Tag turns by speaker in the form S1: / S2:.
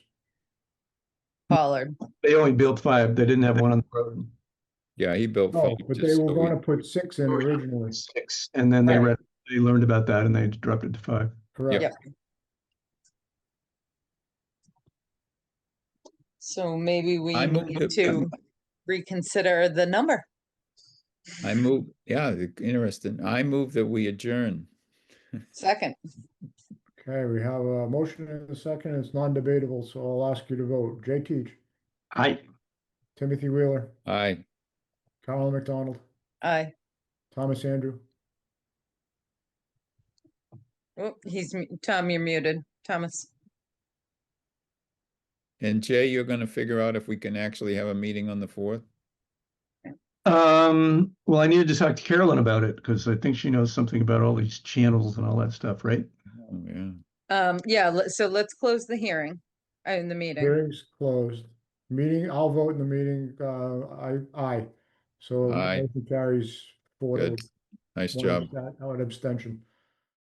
S1: Pollard.
S2: They only built five. They didn't have one on the road.
S3: Yeah, he built five.
S4: No, Oh, but they
S3: just
S4: were
S3: so
S4: gonna
S3: we-
S4: put six in originally,
S2: Six, and then they
S1: Right.
S2: read, they learned about that and they dropped it to five.
S4: correct?
S1: Yep. So maybe we
S3: I moved
S1: need
S3: it-
S1: to reconsider the number.
S3: I move, yeah, the- interesting. I move that we adjourn.
S1: Second,
S4: Okay, we have a motion and a second, it's non-debatable, so I'll ask you to vote. Jay Teach,
S2: I,
S4: Timothy Wheeler,
S3: Aye,
S4: Carolyn McDonald,
S1: aye.
S4: Thomas Andrew,
S1: Oh, he's, mu- Tom, you're muted. Thomas.
S3: and Jay, you're gonna figure out if we can actually have a meeting on the fourth?
S2: um, well, I needed to talk to Carolyn about it because I think she knows something about all these channels and all that stuff, right?
S3: Oh, yeah.
S1: Um, yeah, let- so let's close the hearing, uh, in the meeting.
S4: hearing's closed. Meeting, I'll vote in the meeting, uh, I, aye. So
S3: Aye.
S4: motion carries four to
S3: Good. Nice
S4: one
S3: job.
S4: abst- Oh, an abstention.